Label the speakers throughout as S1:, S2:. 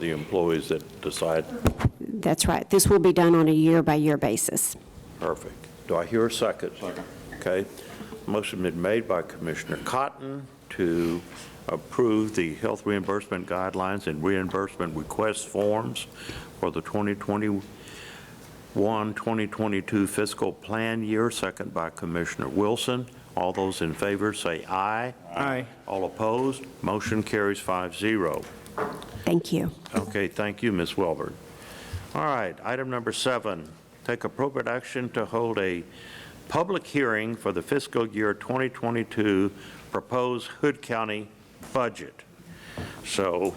S1: the employees that decide,
S2: That's right. This will be done on a year-by-year basis.
S1: perfect. Do I hear a second? Second. Okay. Motion been made by Commissioner Cotton to approve the health reimbursement guidelines and reimbursement request forms for the 2021-2022 fiscal plan year, second by Commissioner Wilson. All those in favor say aye.
S3: Aye.
S1: All opposed, motion carries 5-0.
S2: Thank you.
S1: Okay, thank you, Ms. Welborn. All right, item number seven, take appropriate action to hold a public hearing for the fiscal year 2022 proposed Hood County budget. So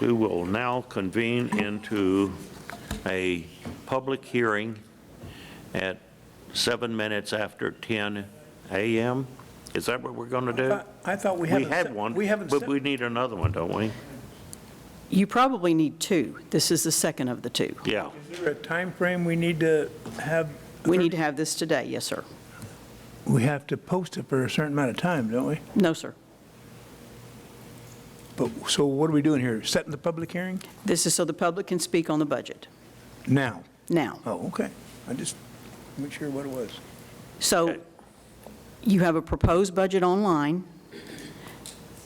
S1: we will now convene into a public hearing at seven minutes after 10 a.m. Is that what we're going to do?
S4: thought- I thought Uh,
S1: Uh, We
S4: we haven't.
S1: had
S4: set-
S1: one,
S4: We haven't.
S1: but
S4: set-
S1: we need another one, don't we?
S5: You probably need two. This is the second of the two.
S1: Yeah.
S4: Is there a timeframe we need to have?
S5: We need to have this today, yes, sir.
S4: We have to post it for a certain amount of time, don't we?
S5: No, sir.
S4: But, so what are we doing here? Setting the public hearing?
S5: This is so the public can speak on the budget
S4: Now?
S5: now.
S4: Oh, okay. I just, make sure what it was.
S5: So
S1: Okay.
S5: you have a proposed budget online,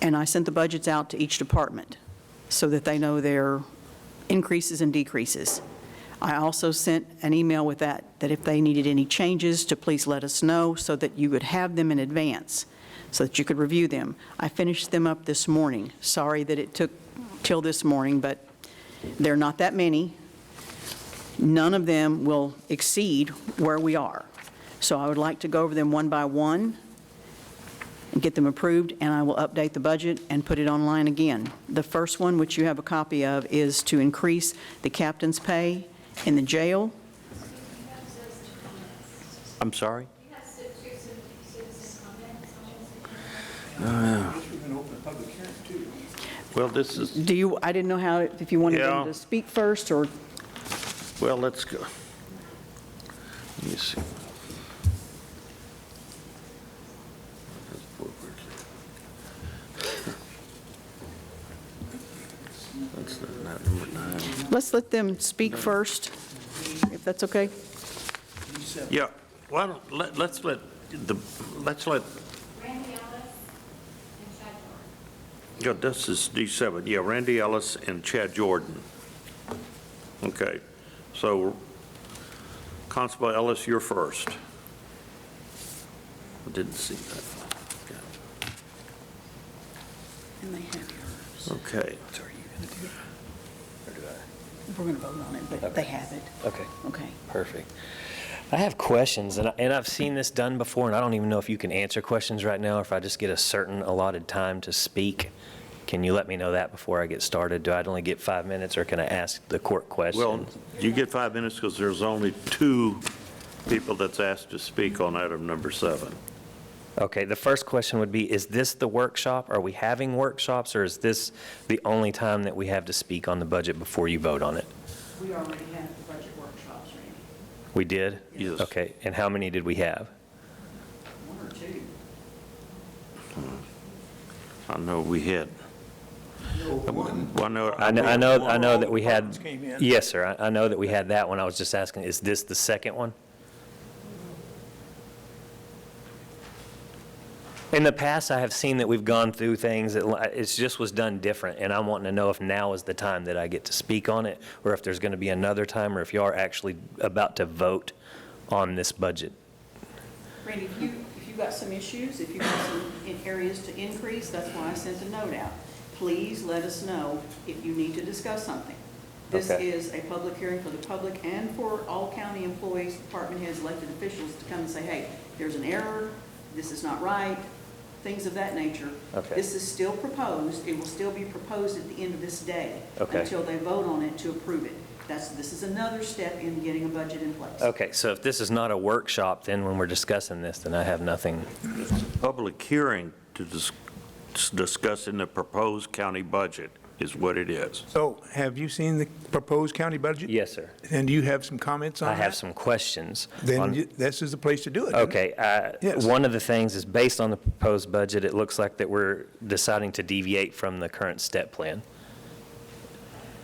S5: and I sent the budgets out to each department so that they know their increases and decreases. I also sent an email with that, that if they needed any changes, to please let us know so that you would have them in advance, so that you could review them. I finished them up this morning. Sorry that it took till this morning, but they're not that many. None of them will exceed where we are. So I would like to go over them one by one and get them approved, and I will update the budget and put it online again. The first one, which you have a copy of, is to increase the captain's pay in the jail.
S1: I'm sorry?
S4: Ah.
S1: Well, this is,
S5: Do you, I didn't know how, if you wanted
S1: Yeah.
S5: them to speak first, or,
S1: well, let's go. Let me see. That's not- not number nine.
S5: let's let them speak first, if that's okay?
S1: Yeah, why don't, let- let's let, the let's let,
S6: Randy Ellis and Chad Moore.
S1: yeah, this is D7, yeah, Randy Ellis and Chad Jordan. Okay, so Constable Ellis, you're first. I didn't see that.
S5: And they have yours.
S1: Okay,
S5: So are you going to do it? Or do I? We're going to vote on it, but they have it.
S7: Okay,
S5: Okay.
S7: perfect. I have questions, and I- and I've seen this done before, and I don't even know if you can answer questions right now, or if I just get a certain allotted time to speak. Can you let me know that before I get started? Do I only get five minutes, or can I ask the court questions?
S1: well, you get five minutes because there's only two people that's asked to speak on item number seven.
S7: Okay, the first question would be, is this the workshop? Are we having workshops, or is this the only time that we have to speak on the budget before you vote on it?
S5: We already have the budget workshops, Randy.
S7: We did?
S1: Yes.
S7: Okay, and how many did we have?
S5: One or two.
S1: I know we had. Well, I know,
S7: I know, I know, I know that we
S4: All
S7: had,
S4: the departments came in.
S7: yes, sir, I- I know that we had that one, I was just asking, is this the second one? In the past, I have seen that we've gone through things, that li- it's just was done different, and I'm wanting to know if now is the time that I get to speak on it, or if there's going to be another time, or if you are actually about to vote on this budget.
S5: Randy, if you, if you've got some issues, if you've got some in- areas to increase, that's why I sent a note out. Please let us know if you need to discuss something. This
S7: Okay.
S5: is a public hearing for the public and for all county employees, department heads, elected officials to come and say, hey, there's an error, this is not right, things of that nature.
S7: Okay.
S5: This is still proposed, it will still be proposed at the end of this day.
S7: Okay.
S5: Until they vote on it to approve it. That's, this is another step in getting a budget in place.
S7: Okay, so if this is not a workshop, then when we're discussing this, then I have nothing.
S1: public hearing to dis- discussing the proposed county budget is what it is.
S4: So have you seen the proposed county budget?
S7: Yes, sir.
S4: And do you have some comments on
S7: I
S4: that?
S7: have some questions.
S4: Then
S7: on-
S4: you- this is the place to do it. isn't it?
S7: Okay, uh,
S4: Yes.
S7: one of the things is, based on the proposed budget, it looks like that we're deciding to deviate from the current step plan.